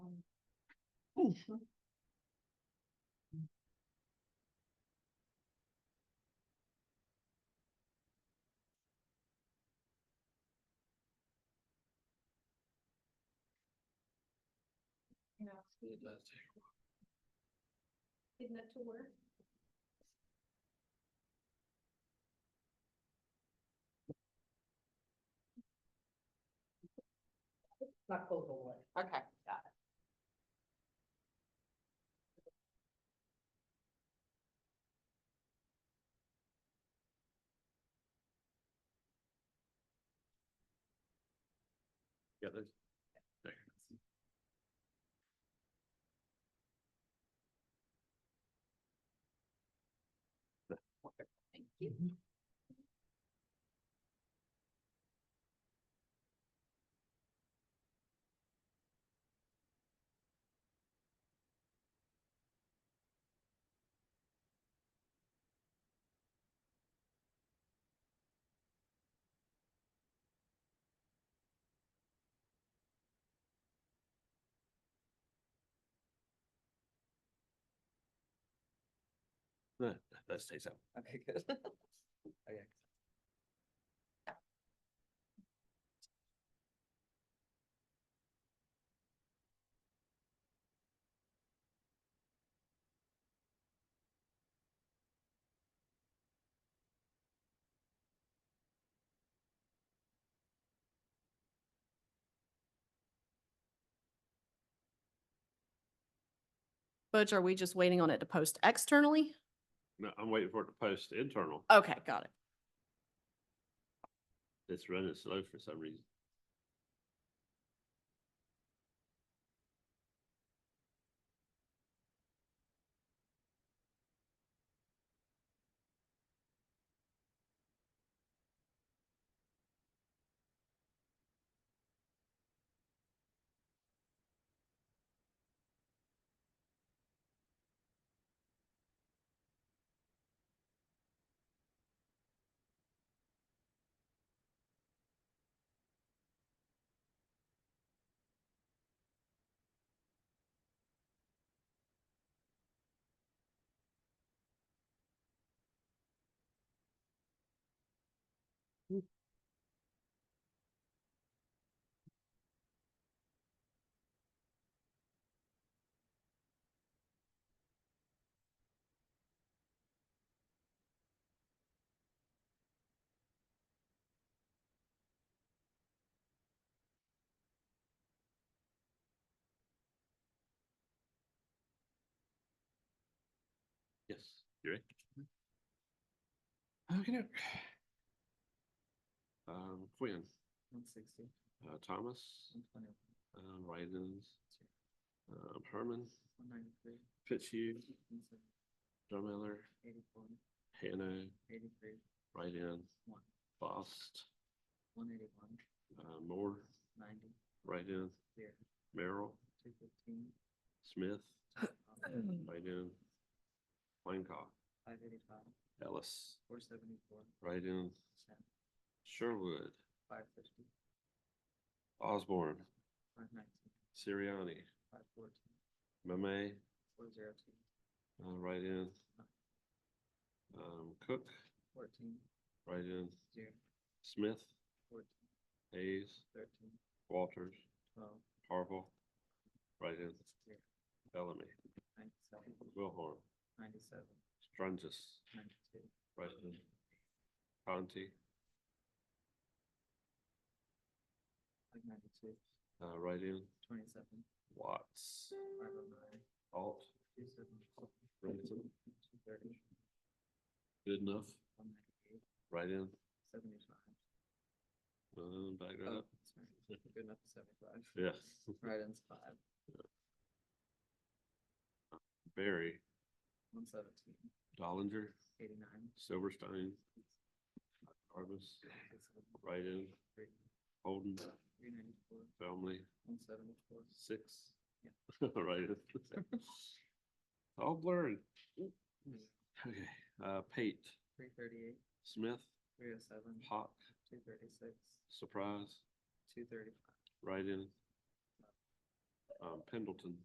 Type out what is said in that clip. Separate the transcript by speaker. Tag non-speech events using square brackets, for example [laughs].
Speaker 1: Isn't that to work?
Speaker 2: Not close to what?
Speaker 3: Okay, got it.
Speaker 4: Yeah, there's.
Speaker 3: Thank you.
Speaker 4: That, that stays out.
Speaker 3: Okay, good.
Speaker 4: Okay.
Speaker 5: Butch, are we just waiting on it to post externally?
Speaker 4: No, I'm waiting for it to post internal.
Speaker 5: Okay, got it.
Speaker 4: It's running slow for some reason. Yes, you're right. Okay. Um, Quinn,
Speaker 2: One sixty,
Speaker 4: uh, Thomas,
Speaker 2: one twenty,
Speaker 4: um, Raisins, um, Herman,
Speaker 2: one ninety-three,
Speaker 4: Fitzhugh,
Speaker 2: one seventy,
Speaker 4: Drummiller,
Speaker 2: eighty-four,
Speaker 4: Hannah,
Speaker 2: eighty-three,
Speaker 4: right in,
Speaker 2: one,
Speaker 4: Bost,
Speaker 2: one eighty-one,
Speaker 4: uh, Moore,
Speaker 2: ninety,
Speaker 4: right in,
Speaker 2: zero,
Speaker 4: Merrill,
Speaker 2: two fifteen,
Speaker 4: Smith,
Speaker 2: five
Speaker 4: right in, Blancock,
Speaker 2: eighty-five,
Speaker 4: Ellis,
Speaker 2: four seventy-four,
Speaker 4: right in,
Speaker 2: ten,
Speaker 4: Sherwood,
Speaker 2: five fifty,
Speaker 4: Osborne,
Speaker 2: five nineteen,
Speaker 4: Siriani,
Speaker 2: five fourteen,
Speaker 4: Mame,
Speaker 2: four zero two,
Speaker 4: uh, right in, um, Cook,
Speaker 2: fourteen,
Speaker 4: right in,
Speaker 2: zero,
Speaker 4: Smith,
Speaker 2: fourteen,
Speaker 4: Hayes,
Speaker 2: thirteen,
Speaker 4: Walters,
Speaker 2: twelve,
Speaker 4: Harville, right in,
Speaker 2: zero,
Speaker 4: Bellamy,
Speaker 2: ninety-seven,
Speaker 4: Wilhorn,
Speaker 2: ninety-seven,
Speaker 4: Strungus,
Speaker 2: ninety-two,
Speaker 4: right in, Conti,
Speaker 2: five ninety-two,
Speaker 4: uh, right in,
Speaker 2: twenty-seven,
Speaker 4: Watts,
Speaker 2: five oh nine,
Speaker 4: Alt,
Speaker 2: two seventy,
Speaker 4: Ransom,
Speaker 2: two thirty,
Speaker 4: good enough,
Speaker 2: one ninety-eight,
Speaker 4: right in,
Speaker 2: seventy-five,
Speaker 4: um, back that
Speaker 2: Oh,
Speaker 4: up,
Speaker 2: sorry. Good enough, seventy-five.
Speaker 4: yeah,
Speaker 2: Right-ins five,
Speaker 4: [laughs] Barry,
Speaker 2: one seventeen,
Speaker 4: Dollinger,
Speaker 2: eighty-nine,
Speaker 4: Silverstein, Jarvis, right in,
Speaker 2: three,
Speaker 4: Holden,
Speaker 2: three ninety-four,
Speaker 4: Family,
Speaker 2: one seventy-four,
Speaker 4: six. [laughs]
Speaker 2: Yeah.
Speaker 4: Right. [laughs] All blurred. Okay, uh, Pate,
Speaker 2: three thirty-eight,
Speaker 4: Smith,
Speaker 2: three oh seven,
Speaker 4: Hawk,
Speaker 2: two thirty-six,
Speaker 4: Surprise,
Speaker 2: two thirty-five.
Speaker 4: right in. Um, Pendleton.